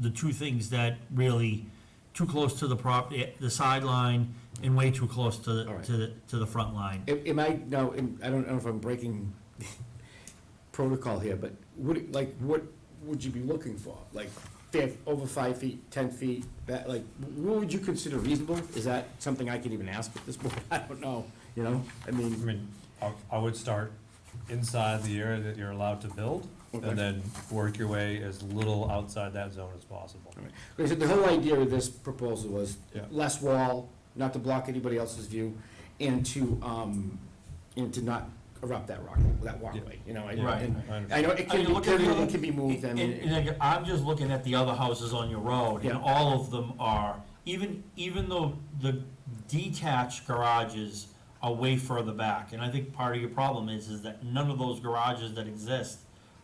the two things that really, too close to the prop, eh, the sideline and way too close to, All right. to, the- to the front line. Am am I, now, am- I don't know if I'm breaking protocol here, but would, it- like, what would you be looking for? Like, five, over five feet, ten feet, that, like, what would you consider reasonable? Is that something I can even ask at this point? I don't know, you know, I I mean, mean, I, I would start inside the area that you're allowed to build, Okay. and then work your way as little outside that zone as possible. because the whole idea of this proposal was Yeah. less wall, not to block anybody else's view, and to, um, and to not erupt that rock, that walkway, you know? and- Yeah, Right. and I understand. I know it Are can, you be looking at curvy, the- it can be moved, I And, mean. and again, I'm just looking at the other houses on your road, and Yeah. all of them are, even, even though the detached garages are way further back, and I think part of your problem is, is that none of those garages that exist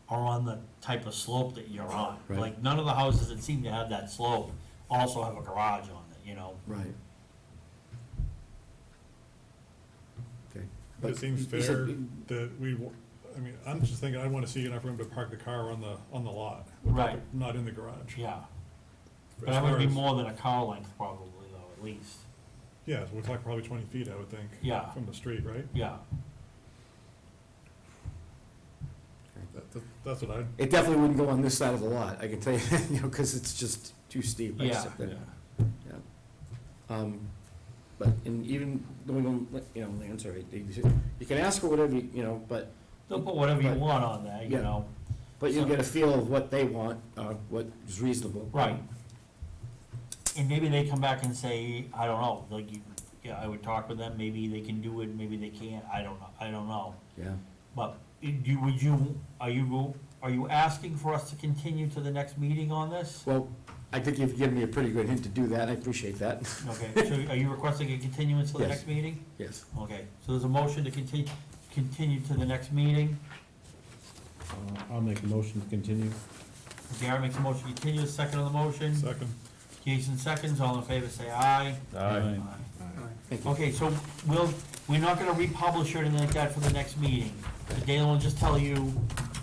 are on the type of slope that you're on. Right. Like, none of the houses that seem to have that slope also have a garage on it, you know? Right. Okay. It But seems you said- fair that we, w- I mean, I'm just thinking, I wanna see enough room to park the car on the, on the lot. Right. Not in the garage. Yeah, As but that would far be as- more than a car length probably, though, at least, Yeah, so we're talking probably twenty feet, I would think. Yeah. From the street, right? yeah. That, that- that's what I, It definitely wouldn't go on this side of the lot, I can tell you, that, you know, because it's just too steep. I Yeah. accept that. Yeah. Um, But, and even, going on, like, you know, land survey, they- you can ask for whatever, you you know, but, They'll put whatever you Right. want on there, you Yeah. know, but you'll So- get a feel of what they want, uh, what is reasonable. right. And maybe they come back and say, I don't know, like, you, yeah, I would talk with them, maybe they can do it, maybe they can't, I don't know, I don't know. Yeah. But, i- do, would you, are you, are you asking for us to continue to the next meeting on this? Well, I think you've given me a pretty good hint to do that, I appreciate that, Okay, so are you requesting a continuance to the Yes. next meeting? yes. Okay, so there's a motion to continue, continue to the next meeting, Uh, I'll make a motion to continue. Gary makes a motion, to continue, second on the motion. second, Jason seconds, all in favor, say aye. Aye. Thank you. Okay, so we'll, we're not gonna republish or anything like that for the next meeting. Dale will just tell you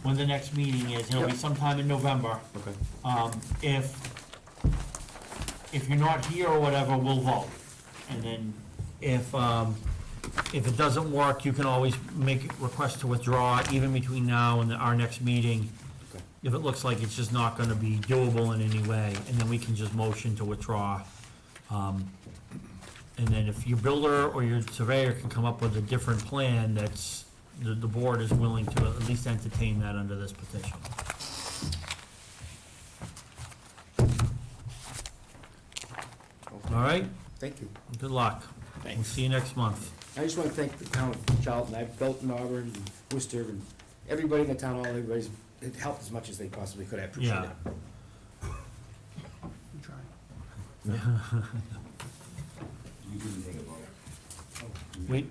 when the next meeting is, it'll be Yep. sometime in November. Okay. Um, if, if you're not here or whatever, we'll vote. And then if, um, if it doesn't work, you can always make a request to withdraw even between now and our next meeting. Okay. If it looks like it's just not gonna be doable in any way, and then we can just motion to withdraw. Um, And then if your builder or your surveyor can come up with a different plan that's, the, the board is willing to at least entertain that under this petition. All right? Thank you. Good luck. We'll Thanks. see you next month. I just want to thank the town of Charlton, I've built in Auburn, and Worcester, and everybody in the town, all everybody's, it helped as much as they possibly could, I appreciate Yeah. it. We,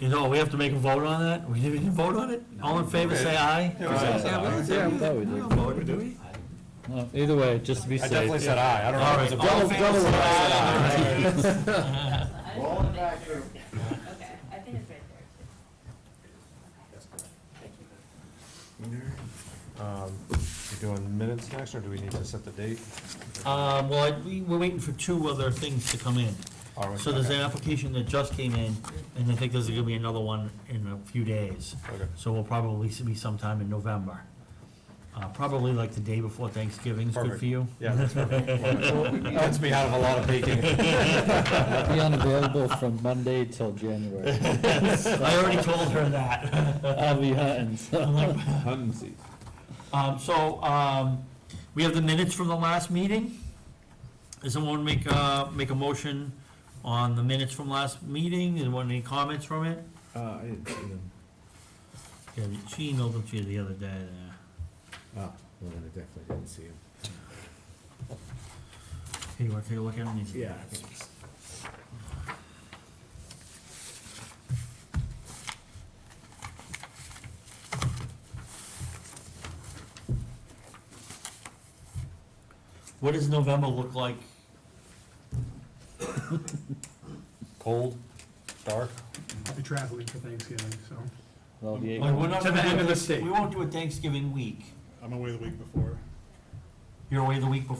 you know, we have to make a vote on that? We didn't even vote on it? All in favor, say aye. uh, Yeah, I thought we did. We don't vote, do we? Uh, Either way, just to be I safe. definitely said aye, I don't know if it's a. All in favor, say aye. Roll it back through. Okay, I think it's right there. Um, We're doing minutes next, or do we need to set the date? Um, well, I- we- we're waiting for two other things to come in. Are we- So there's an okay, application that just came in, and I think there's gonna be another one in a few days. Okay, So we'll probably be sometime in November. Uh, probably like the day before Thanksgiving's good Perfect. for you. yeah, that's perfect. That's me out of a lot of baking. I'll be unavailable from Monday till January. I already told her that. I'll be hunting, so. Um, so, um, we have the minutes from the last meeting. Does someone make a, make a motion on the minutes from last meeting? Anyone, any comments from it? Uh, I didn't see them. Yeah, she emailed them to you the other day, there. Ah, well, then I definitely didn't see them. Hey, you wanna take a look at them? Yeah. What does November look like? Cold, dark, Be traveling for Thanksgiving, so. Well, the Like, we're eight, not To the gonna end do of the it- state. We won't do a Thanksgiving week. I'm away the week before. you're away the week before